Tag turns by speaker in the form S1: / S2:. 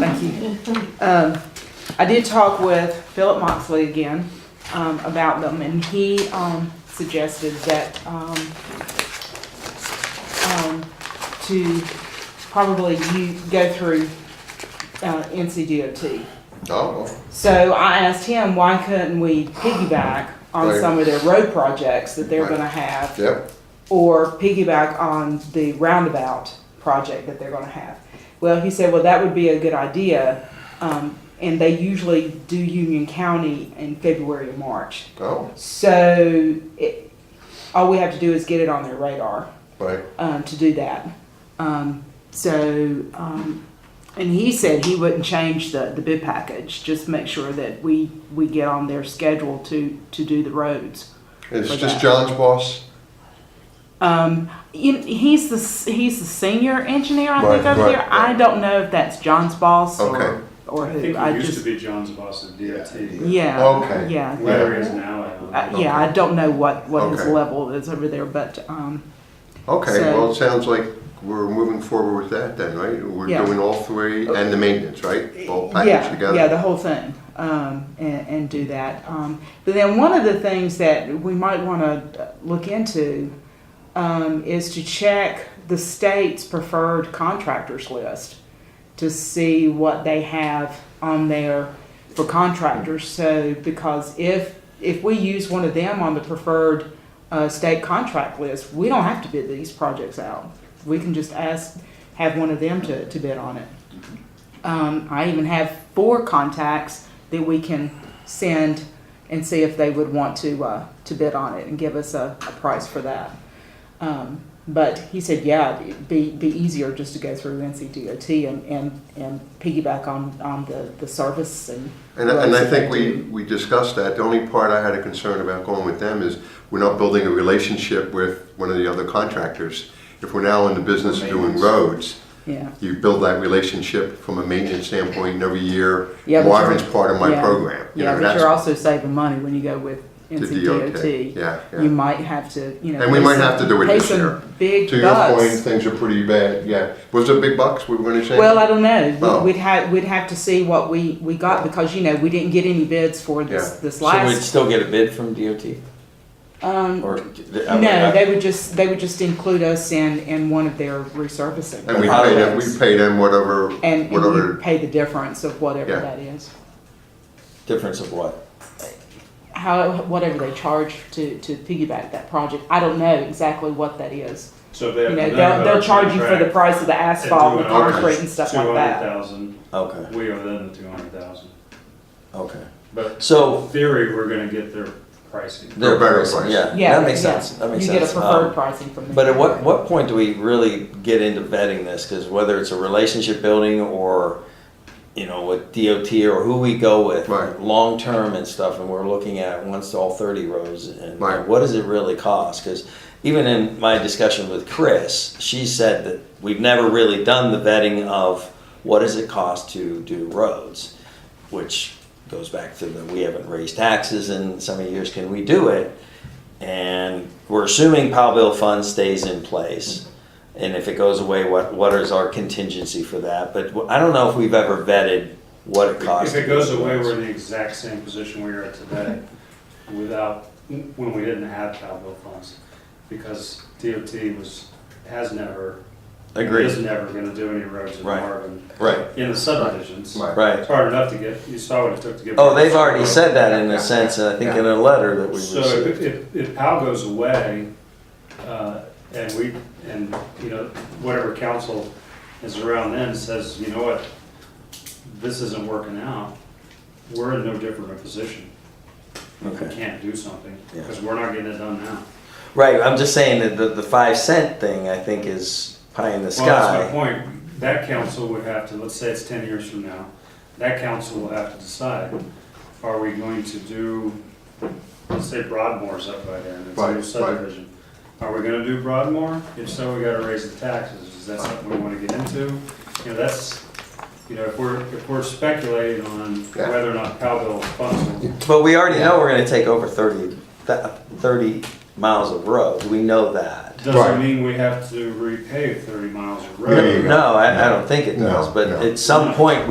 S1: Thank you. Um, I did talk with Philip Moxley again, um, about them and he, um, suggested that, um, um, to probably you go through, uh, NCDOT.
S2: Oh,
S1: So I asked him, why couldn't we piggyback on
S2: Right.
S1: some of their road projects that they're
S2: Right.
S1: gonna have?
S2: yep,
S1: or piggyback on the roundabout project that they're going to have. Well, he said, well, that would be a good idea. Um, and they usually do Union County in February or March.
S2: oh,
S1: So it, all we have to do is get it on their radar
S2: right,
S1: um, to do that. Um, so, um, and he said he wouldn't change the, the bid package, just make sure that we, we get on their schedule to, to do the roads.
S2: it's
S1: For
S2: just
S1: that.
S2: John's boss?
S1: Um, you- he's the he's the senior engineer, I think,
S2: Right,
S1: over
S2: right,
S1: there. I
S2: right.
S1: don't know if that's John's boss
S2: Okay.
S1: or or
S3: I
S1: who.
S3: think
S1: I,
S3: it used to
S1: just
S3: be John's boss at DOT.
S1: yeah,
S2: Okay.
S1: yeah,
S3: Whether he is now, I don't know.
S1: Uh, yeah. I don't know what what his
S2: Okay.
S1: level is over there, but um,
S2: Okay,
S1: So-
S2: well, it sounds like we're moving forward with that then, right? We're
S1: Yeah. Uh,
S2: doing all three and the maintenance, right? All packaged
S1: yeah, yeah,
S2: together?
S1: the whole thing, um, and, and do that. Um, but then one of the things that we might want to look into um, is to check the state's preferred contractors list to see what they have on there for contractors. So because if if we use one of them on the preferred uh, state contract list, we don't have to bid these projects out. We can just ask have one of them to, to bid on it. Um, I even have four contacts that we can send and see if they would want to uh, to bid on it and give us a, a price for that. Um, but he said, yeah, it'd be, be easier just to go through NCDOT and, and, and piggyback on, on the, the service and.
S2: And, and I think we, we discussed that. The only part I had a concern about going with them is we're not building a relationship with one of the other contractors. If we're now in the business of doing
S4: Maintenance.
S2: roads,
S1: Yeah,
S2: you build that relationship from a maintenance standpoint and every year.
S1: Yeah, but you're-
S2: Marvin's part of my
S1: yeah.
S2: program. You
S1: yeah,
S2: know,
S1: but
S2: that's
S1: you're also saving money when you go with
S2: the DOT.
S1: NCDOT.
S2: Yeah, yeah.
S1: You might have to, you know.
S2: And we
S1: pay
S2: might
S1: some-
S2: have to do it
S1: pay
S2: this
S1: some
S2: year.
S1: Big
S2: To your point,
S1: bucks.
S2: things are pretty bad, yeah. Was it big bucks we were gonna say?
S1: Well, I don't know.
S2: Oh.
S1: We- We'd have, we'd have to see what we, we got because, you know, we didn't get any bids for this,
S2: Yeah.
S1: this
S4: So we'd
S1: last.
S4: still get a bid from DOT
S1: Um,
S4: or?
S1: no, they would just, they would just include us in, in one of their resurfacing.
S2: And we pay them, we
S4: Highways.
S2: pay them whatever,
S1: And and you
S2: whatever,
S1: pay the difference of whatever
S2: Yeah.
S1: that is,
S4: Difference of what?
S1: how, whatever they charge to, to piggyback that project. I don't know exactly what that is.
S3: So if they
S1: You
S3: have.
S1: know, they'll, they'll charge you for the price of the asphalt, the
S2: do ours.
S1: concrete and stuff like
S3: Two
S1: that.
S3: hundred thousand,
S4: Okay,
S3: we owe them the two hundred thousand.
S4: okay.
S3: But in
S4: So
S3: theory, we're gonna get their pricing.
S4: they're
S2: better
S4: better
S2: price.
S4: Yeah,
S1: Yeah,
S4: that makes
S1: yeah.
S4: sense. That makes
S1: You
S4: sense.
S1: get a preferred
S4: Um,
S1: pricing from them.
S4: But at what, what point do we really get into vetting this? Because whether it's a relationship building or, you know, with DOT or who we go with,
S2: Right.
S4: long-term and stuff, and we're looking at once all 30 rows, and
S2: Right.
S4: what does it really cost? Because even in my discussion with Chris, she said that we've never really done the vetting of what does it cost to do roads, which goes back to the, we haven't raised taxes in so many years, can we do it? And we're assuming Powellville Fund stays in place. And if it goes away, what, what is our contingency for that? But wh- I don't know if we've ever vetted what it costs.
S3: If it
S4: to
S3: goes
S4: do
S3: away,
S4: roads.
S3: we're in the exact same position we are today without, when we didn't have cowbill funds. Because DOT was, has never, is
S4: Agreed,
S3: never gonna do any roads in
S4: Right.
S3: Marvin,
S4: right,
S3: in the subdivisions.
S2: Right.
S4: right.
S3: It's hard enough to get, you saw what it took to get.
S4: Oh, they've already said that in a sense, and I think in a letter that we
S3: So
S4: received.
S3: if, if, if POW goes away, uh, and we, and, you know, whatever council is around then says, you know what, this isn't working out, we're in no different a position. We
S4: Okay.
S3: can't do something,
S4: Yeah.
S3: because we're not getting it done now.
S4: Right, I'm just saying that the, the five cent thing, I think, is pie in the
S3: Well, that's
S4: sky.
S3: my point, that council would have to, let's say it's ten years from now, that council will have to decide, are we going to do, let's say Broadmoor's up by then, it's
S2: Right,
S3: a
S2: right.
S3: new subdivision. Are we gonna do Broadmoor? If so, we gotta raise the taxes, is that something we wanna get into? You know, that's, you know, if we're, if we're speculating on
S2: Yeah.
S3: whether or not Powell funds will.
S4: But we already know we're gonna take over thirty, th- thirty miles of road, we know that.
S2: Right.
S3: Doesn't mean we have to repave thirty miles of
S2: There you
S3: road.
S2: go.
S4: No, I, I don't think it
S2: No,
S4: does,
S2: no.
S4: but at some point,